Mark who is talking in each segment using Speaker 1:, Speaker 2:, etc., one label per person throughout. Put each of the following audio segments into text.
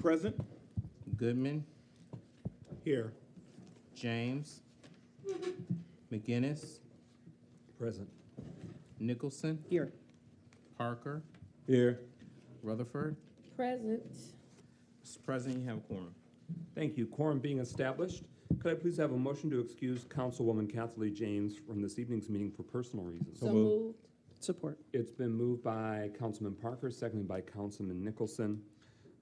Speaker 1: Present.
Speaker 2: Goodman,
Speaker 1: Here.
Speaker 2: James, McGinnis,
Speaker 1: Present.
Speaker 2: Nicholson,
Speaker 3: Here.
Speaker 2: Parker,
Speaker 1: Here.
Speaker 2: Rutherford.
Speaker 3: Present.
Speaker 2: Mr. President, you have a quorum.
Speaker 4: Thank you. Quorum being established, could I please have a motion to excuse Councilwoman Kathy James from this evening's meeting for personal reasons?
Speaker 3: So moved.
Speaker 5: Support.
Speaker 4: It's been moved by Councilman Parker, seconded by Councilman Nicholson,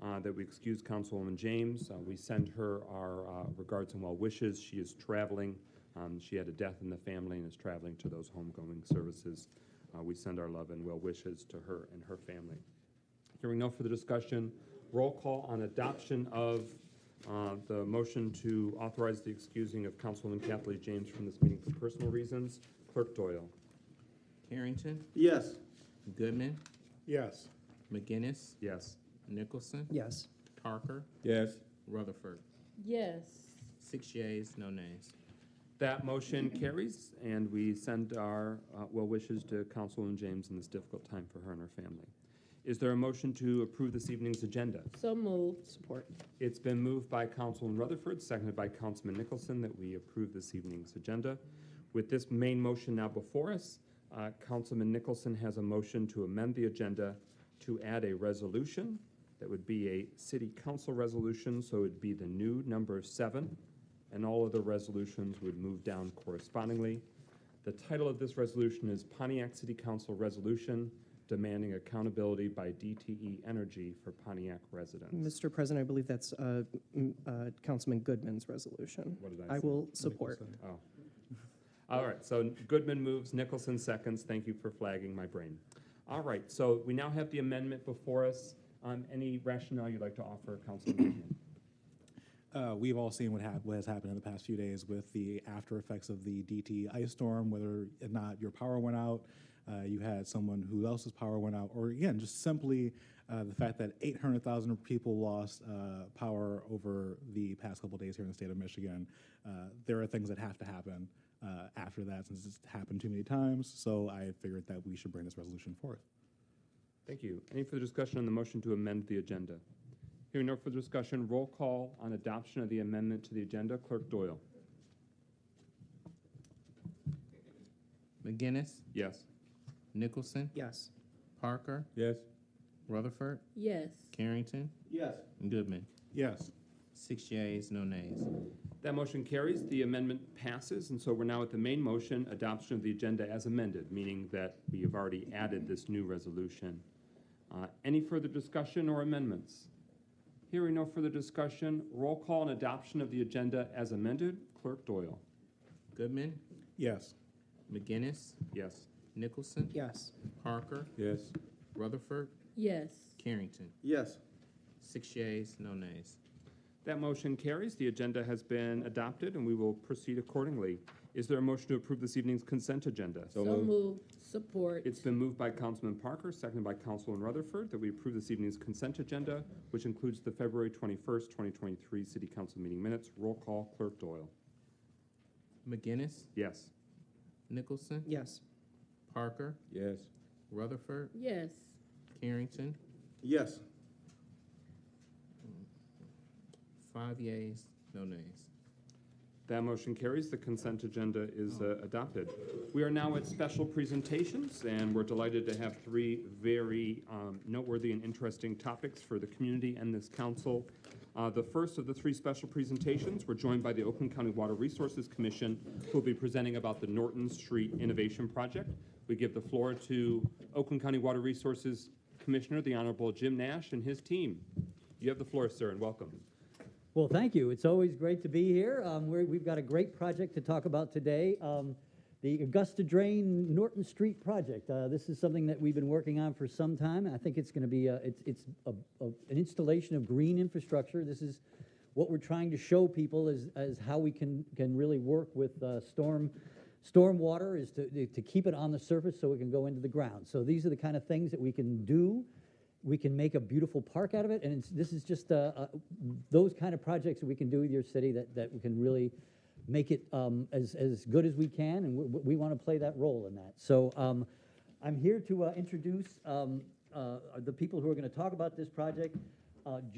Speaker 4: uh, that we excuse Councilwoman James. Uh, We send her our uh, regards and well wishes. She is traveling. Um, She had a death in the family and is traveling to those homegoing services. Uh, We send our love and well wishes to her and her family. Hearing no further discussion, roll call on adoption of uh, the motion to authorize the excusing of Councilwoman Kathleen James from this meeting for personal reasons. Clerk Doyle.
Speaker 2: Harrington,
Speaker 1: Yes.
Speaker 2: Goodman,
Speaker 1: Yes.
Speaker 2: McGinnis,
Speaker 4: Yes.
Speaker 2: Nicholson,
Speaker 5: Yes.
Speaker 2: Parker,
Speaker 1: Yes.
Speaker 2: Rutherford.
Speaker 3: Yes.
Speaker 2: Six yeas, no nays.
Speaker 4: That motion carries, and we send our uh, well wishes to Councilwoman James in this difficult time for her and her family. Is there a motion to approve this evening's agenda?
Speaker 3: So moved.
Speaker 5: Support.
Speaker 4: It's been moved by Councilman Rutherford, seconded by Councilman Nicholson, that we approve this evening's agenda. With this main motion now before us, uh, Councilman Nicholson has a motion to amend the agenda to add a resolution that would be a city council resolution, so it'd be the new number seven, and all other resolutions would move down correspondingly. The title of this resolution is Pontiac City Council Resolution Demanding Accountability by DTE Energy for Pontiac Residents.
Speaker 5: Mr. President, I believe that's uh, m- uh, Councilman Goodman's resolution.
Speaker 4: What did I
Speaker 5: I
Speaker 4: say?
Speaker 5: will support.
Speaker 4: Oh. All right, so Goodman moves, Nicholson seconds. Thank you for flagging my brain. All right, so we now have the amendment before us. Um, any rationale you'd like to offer, Councilman Goodman?
Speaker 6: Uh, we've all seen what, hap- what has happened in the past few days with the after effects of the DT ice storm, whether or not your power went out, uh, you had someone who else's power went out, or again, just simply uh, the fact that 800,000 people lost uh, power over the past couple days here in the state of Michigan. Uh, there are things that have to happen uh, after that since it's happened too many times, so I figured that we should bring this resolution forth.
Speaker 4: Thank you. Any further discussion on the motion to amend the agenda? Hearing no further discussion, roll call on adoption of the amendment to the agenda. Clerk Doyle?
Speaker 2: McGinnis,
Speaker 4: Yes.
Speaker 2: Nicholson,
Speaker 5: Yes.
Speaker 2: Parker,
Speaker 1: Yes.
Speaker 2: Rutherford,
Speaker 3: Yes.
Speaker 2: Carrington,
Speaker 1: Yes.
Speaker 2: and Goodman.
Speaker 6: Yes.
Speaker 2: Six yeas, no nays.
Speaker 4: That motion carries, the amendment passes, and so we're now at the main motion, adoption of the agenda as amended, meaning that we have already added this new resolution. Uh, Any further discussion or amendments? Hearing no further discussion, roll call and adoption of the agenda as amended. Clerk Doyle?
Speaker 2: Goodman,
Speaker 6: Yes.
Speaker 2: McGinnis,
Speaker 4: Yes.
Speaker 2: Nicholson,
Speaker 5: Yes.
Speaker 2: Parker,
Speaker 1: Yes.
Speaker 2: Rutherford,
Speaker 3: Yes.
Speaker 2: Carrington.
Speaker 1: Yes.
Speaker 2: Six yeas, no nays.
Speaker 4: That motion carries, the agenda has been adopted, and we will proceed accordingly. Is there a motion to approve this evening's consent agenda?
Speaker 3: So moved. Support.
Speaker 4: It's been moved by Councilman Parker, seconded by Councilman Rutherford, that we approve this evening's consent agenda, which includes the February 21st, 2023 City Council meeting minutes. Roll call, Clerk Doyle.
Speaker 2: McGinnis,
Speaker 4: Yes.
Speaker 2: Nicholson,
Speaker 5: Yes.
Speaker 2: Parker,
Speaker 1: Yes.
Speaker 2: Rutherford,
Speaker 3: Yes.
Speaker 2: Carrington.
Speaker 1: Yes.
Speaker 2: Five yeas, no nays.
Speaker 4: That motion carries. The consent agenda is uh, adopted. We are now at special presentations, and we're delighted to have three very um, noteworthy and interesting topics for the community and this council. Uh, The first of the three special presentations, we're joined by the Oakland County Water Resources Commission, who will be presenting about the Norton Street Innovation Project. We give the floor to Oakland County Water Resources Commissioner, the Honorable Jim Nash, and his team. You have the floor, sir, and welcome.
Speaker 7: Well, thank you. It's always great to be here. Um, we're, we've got a great project to talk about today. Um, the Augusta Drain Norton Street project. Uh, this is something that we've been working on for some time. I think it's going to be a, it's, it's a, a, an installation of green infrastructure. This is what we're trying to show people is, is how we can, can really work with uh, storm stormwater is to, to keep it on the surface so it can go into the ground. So these are the kind of things that we can do we can make a beautiful park out of it, and it's, this is just uh, uh, those kind of projects that we can do with your city that, that we can really make it um, as, as good as we can, and we, we want to play that role in that. So um, I'm here to uh, introduce um, uh, the people who are going to talk about this project. Uh,